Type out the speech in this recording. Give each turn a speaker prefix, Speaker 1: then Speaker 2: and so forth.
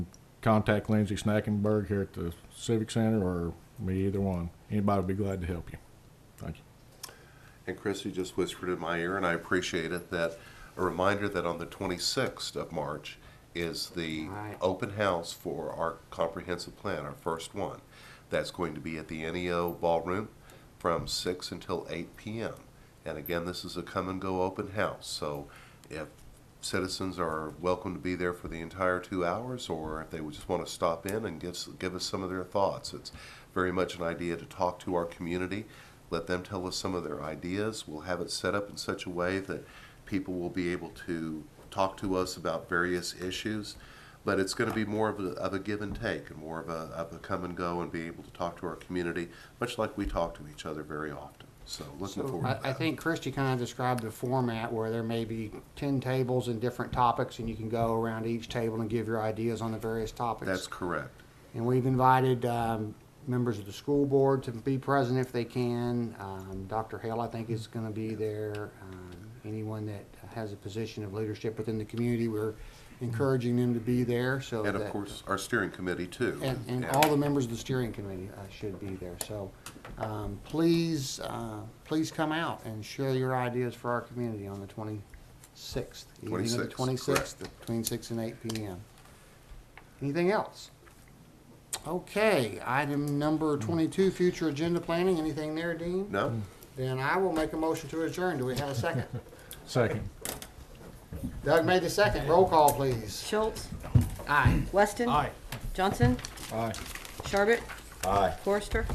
Speaker 1: contact Lindsay Snackenberg here at the Civic Center or me, either one. Anybody would be glad to help you. Thank you.
Speaker 2: And Chris, you just whispered in my ear, and I appreciate it, that a reminder that on the 26th of March is the
Speaker 3: Right.
Speaker 2: open house for our comprehensive plan, our first one. That's going to be at the NEO Ballroom from 6 until 8 p.m. And again, this is a come and go open house. So if citizens are welcome to be there for the entire two hours, or if they would just want to stop in and give, s- give us some of their thoughts. It's very much an idea to talk to our community, let them tell us some of their ideas. We'll have it set up in such a way that people will be able to talk to us about various issues. But it's going to be more of a, of a give and take and more of a, of a come and go and be able to talk to our community, much like we talk to each other very often. So looking forward
Speaker 3: I,
Speaker 2: to that.
Speaker 3: I think Christie kind of described the format where there may be ten tables and different topics, and you can go around each table and give your ideas on the various topics.
Speaker 2: That's correct.
Speaker 3: And we've invited um, members of the school board to be present if they can. Um, Dr. Hale, I think, is going to be there. Um, Anyone that has a position of leadership within the community, we're encouraging them to be there, so
Speaker 2: And of
Speaker 3: that-
Speaker 2: course, our steering committee too.
Speaker 3: And, and all the members of the steering committee uh, should be there. So um, please, uh, please come out and share your ideas for our community on the 26th. evening of the
Speaker 2: 26th,
Speaker 3: 26th, between 6 and 8 p.m. Anything else? Okay, item number 22, future agenda planning. Anything there, Dean?
Speaker 2: No?
Speaker 3: Then I will make a motion to adjourn. Do we have a second?
Speaker 1: Second.
Speaker 3: Doug made the second. Roll call, please.
Speaker 4: Schultz,
Speaker 3: Aye.
Speaker 4: Weston. Johnson,
Speaker 1: Aye.
Speaker 4: Sharbit,
Speaker 1: Aye.
Speaker 4: Forrester.